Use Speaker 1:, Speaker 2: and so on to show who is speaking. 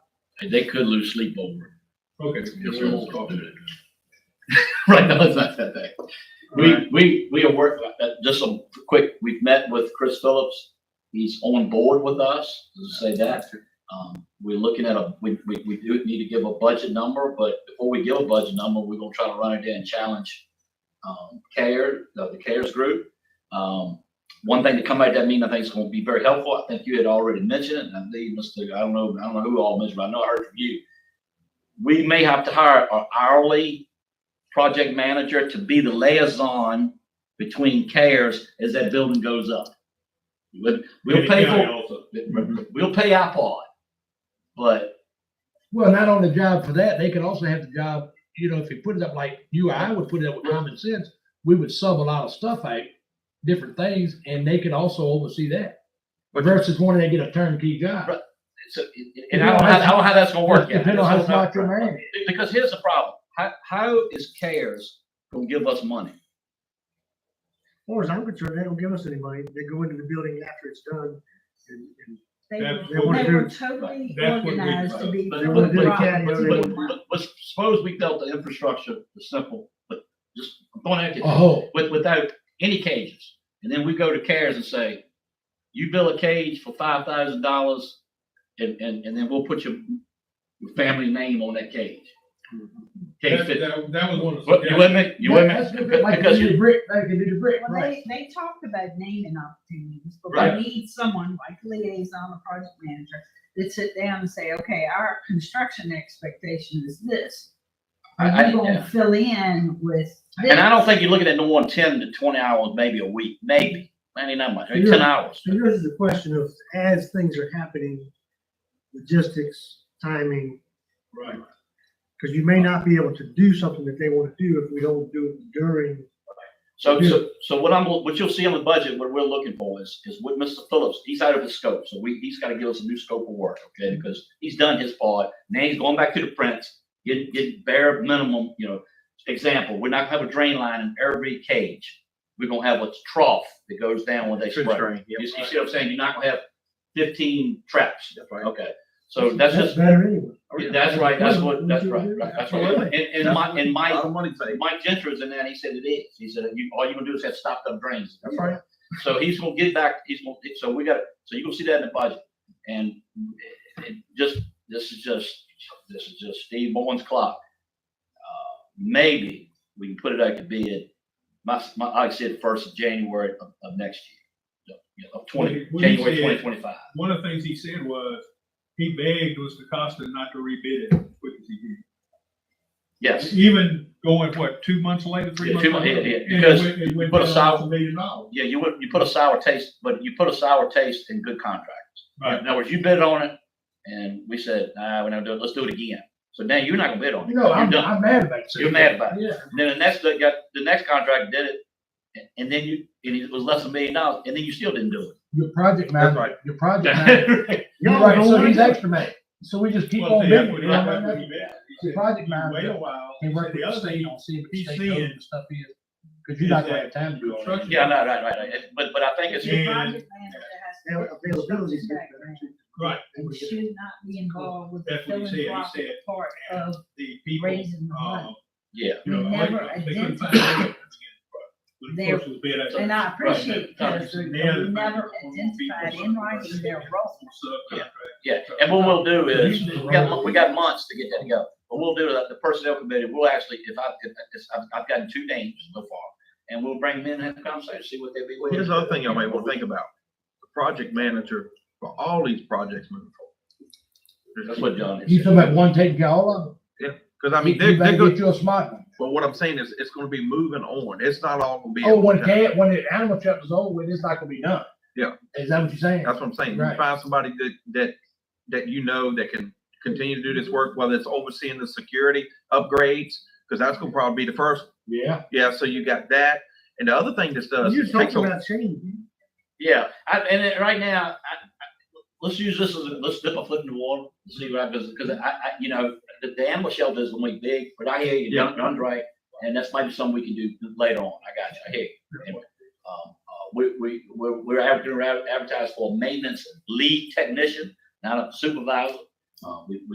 Speaker 1: They could lose sleep over it.
Speaker 2: Okay.
Speaker 1: if we won't talk to it. Right now, it's not that bad. We, we, we are working, just a quick, we've met with Chris Phillips. He's on board with us, let's say that. Um, we're looking at a, we, we, we do need to give a budget number, but before we give a budget number, we're gonna try to run it in and challenge um, CARE, the the CARES group. Um, one thing to come out of that meeting, I think is gonna be very helpful. I think you had already mentioned it, and I think, Mr., I don't know, I don't know who all mentioned, but I know I heard from you we may have to hire an hourly project manager to be the liaison between cares as that building goes up. We'll we'll pay for, Mm-hmm. we'll pay iPod, but
Speaker 3: Well, not on the job for that, they could also have the job, you know, if you put it up like you or I would put it up with common sense, we would sub a lot of stuff out, different things, and they could also oversee that. Versus wanting to get a turnkey job.
Speaker 1: Right. so, and I don't know, how- I don't know how that's gonna work yet.
Speaker 3: Depending on how smart your man is.
Speaker 1: Because here's the problem, how, how is cares gonna give us money?
Speaker 4: far as I'm concerned, they don't give us any money. They go into the building after it's done and, and
Speaker 5: They
Speaker 2: That's
Speaker 5: were-
Speaker 4: what we
Speaker 5: they were
Speaker 4: do.
Speaker 5: totally
Speaker 2: That's what we
Speaker 5: organized to
Speaker 2: do.
Speaker 5: be.
Speaker 1: But-
Speaker 4: they
Speaker 1: but-
Speaker 4: want to do
Speaker 1: but-
Speaker 4: the cat,
Speaker 1: But,
Speaker 4: they
Speaker 1: but,
Speaker 4: want
Speaker 1: but- but suppose we built the infrastructure, the simple, but just, I'm going at you.
Speaker 3: Oh,
Speaker 1: with, without any cages. And then we go to CARES and say, you build a cage for five thousand dollars and, and, and then we'll put your, your family name on that cage. Cage
Speaker 2: That,
Speaker 1: fit.
Speaker 2: that, that was one of the.
Speaker 1: What, you with me? You with
Speaker 3: That's
Speaker 1: me?
Speaker 3: good, like you
Speaker 1: Because
Speaker 3: do
Speaker 1: you,
Speaker 3: the brick, like you do the brick,
Speaker 5: Well,
Speaker 3: right?
Speaker 5: they, they talked about naming opportunities, but
Speaker 1: Right.
Speaker 5: we need someone like liaison or project manager that sit down and say, okay, our construction expectation is this.
Speaker 1: I-
Speaker 5: And
Speaker 1: I-
Speaker 5: you gonna fill in with this.
Speaker 1: and I don't think you're looking at no one ten to twenty hours, maybe a week, maybe, maybe not much, maybe ten
Speaker 4: Yeah.
Speaker 1: hours.
Speaker 4: So this is the question of, as things are happening, logistics, timing,
Speaker 2: Right.
Speaker 4: because you may not be able to do something that they want to do if we don't do it during.
Speaker 1: So, so, so what I'm, what you'll see on the budget, what we're looking for is, is what Mr. Phillips, he's out of his scope, so we, he's gotta give us a new scope of work, okay? Because he's done his part, now he's going back to the prints, get, get bare minimum, you know, example, we're not gonna have a drain line in every cage. We're gonna have a trough that goes down when they spray. You see you see what I'm saying, you're not gonna have fifteen traps, okay? So that's just,
Speaker 4: Better anyway.
Speaker 1: that's right, that's what, that's right, right, that's right. And, and my, and my,
Speaker 6: money
Speaker 1: Mike Gentry was in that, he said it is. He said, you, all you gonna do is have stopped up drains.
Speaker 4: That's right.
Speaker 1: So he's gonna get back, he's gonna, so we gotta, so you're gonna see that in the budget. And it just, this is just, this is just Steve Bowen's clock. Uh, Maybe we can put it out to bid, my, my, I said first of January of, of next year. You know, Of twenty,
Speaker 2: What he
Speaker 1: January
Speaker 2: said-
Speaker 1: twenty twenty-five.
Speaker 2: One of the things he said was, he begged was Costa not to rebid it as quick as he
Speaker 1: Yes,
Speaker 2: did. Even going, what, two months later, three
Speaker 1: Yeah,
Speaker 2: months
Speaker 1: two mon-
Speaker 2: later?
Speaker 1: yeah, yeah,
Speaker 2: And it
Speaker 1: because
Speaker 2: went- it went
Speaker 1: put a
Speaker 2: down
Speaker 1: solid-
Speaker 2: to a million dollars.
Speaker 1: yeah, you would, you put a sour taste, but you put a sour taste in good contract.
Speaker 2: Right.
Speaker 1: In other words, you bid on it, and we said, nah, we're not doing it, let's do it again. So now you're not gonna bid on it.
Speaker 3: You know,
Speaker 1: You're
Speaker 3: I'm,
Speaker 1: done.
Speaker 3: I'm mad about it.
Speaker 1: You're mad about
Speaker 3: Yeah.
Speaker 1: And Then the next, that got, the next contract did it, and- and then you, and it was less than a million dollars, and then you still didn't do
Speaker 3: Your project manager, your project manager,
Speaker 1: it.
Speaker 3: you're
Speaker 4: Y'all
Speaker 3: right,
Speaker 4: don't
Speaker 3: so
Speaker 4: wanna
Speaker 3: he's
Speaker 4: do it.
Speaker 3: extra mad. So we just keep
Speaker 2: Well,
Speaker 3: on
Speaker 2: see,
Speaker 3: bidding.
Speaker 2: that's
Speaker 3: you
Speaker 2: what he-
Speaker 3: know,
Speaker 2: that's
Speaker 3: right?
Speaker 2: what he begged. He
Speaker 3: The
Speaker 2: said,
Speaker 3: project
Speaker 2: Wait
Speaker 3: manager.
Speaker 2: a while. He
Speaker 3: and work
Speaker 2: said,
Speaker 3: with
Speaker 2: The
Speaker 3: the
Speaker 2: other
Speaker 3: state
Speaker 2: thing,
Speaker 3: on seeing if
Speaker 2: he's
Speaker 3: the state knows
Speaker 2: seeing-
Speaker 3: what stuff is, because you're not gonna have time to do all that.
Speaker 1: Yeah, no, right, right, right. But, but I think it's,
Speaker 5: The
Speaker 2: Yeah.
Speaker 5: project manager has to-
Speaker 4: Availability is better.
Speaker 2: right,
Speaker 5: and Should not be involved with the
Speaker 2: That's what he said. He
Speaker 5: philanthropic
Speaker 2: said-
Speaker 5: part of
Speaker 2: the people,
Speaker 5: raising the money.
Speaker 2: um,
Speaker 1: yeah.
Speaker 2: you know,
Speaker 5: We
Speaker 2: like,
Speaker 5: never
Speaker 2: they couldn't find.
Speaker 5: identified
Speaker 2: it. But of
Speaker 5: their-
Speaker 2: course, it was bid out.
Speaker 5: And I appreciate
Speaker 1: Right.
Speaker 5: because we never identified in writing their role.
Speaker 1: Yeah. Yeah, and what we'll do is, we got, mo- we got months to get that to go. But we'll do that, the personnel committee, we'll actually, if I, if, if- I've, I've gotten two names so far, and we'll bring them in and have a conversation, see what they be. willing
Speaker 6: Here's
Speaker 1: to
Speaker 6: the other
Speaker 1: do.
Speaker 6: thing y'all may want to think about. The project manager for all these projects moving
Speaker 1: That's
Speaker 6: forward.
Speaker 1: what John is.
Speaker 3: You talking about one taking care of all of them?
Speaker 6: Because I mean,
Speaker 3: You-
Speaker 6: they're,
Speaker 3: You
Speaker 6: they're
Speaker 3: better get
Speaker 6: good,
Speaker 3: you a smart one.
Speaker 6: but what I'm saying is, it's gonna be moving on. It's not all gonna be. at
Speaker 3: Oh,
Speaker 6: one
Speaker 3: when
Speaker 6: time.
Speaker 3: cat, when the animal shelter's over with, it's not gonna be done.
Speaker 6: Yeah.
Speaker 3: Is that what you're saying?
Speaker 6: That's what I'm saying. You
Speaker 3: Right.
Speaker 6: find somebody that, that, that you know that can continue to do this work, whether it's overseeing the security upgrades, because that's gonna probably be the first.
Speaker 3: Yeah.
Speaker 6: Yeah, so you got that. And the other thing this does.
Speaker 4: You're
Speaker 6: is takes
Speaker 4: talking
Speaker 6: a-
Speaker 4: about change.
Speaker 1: Yeah, I, and it- right now, I, I, let's use this as, a- let's dip a foot in the water, and see what happens, because I, I, you know, the, the animal shelter is only big, but I hear you,
Speaker 6: Yeah.
Speaker 1: you're on right, and that's might be something we can do later on, I got you, I hear you. Anyway, Um, uh, we, we, we're, we're advertising, advertising for a maintenance lead technician, not a supervisor, uh, we, we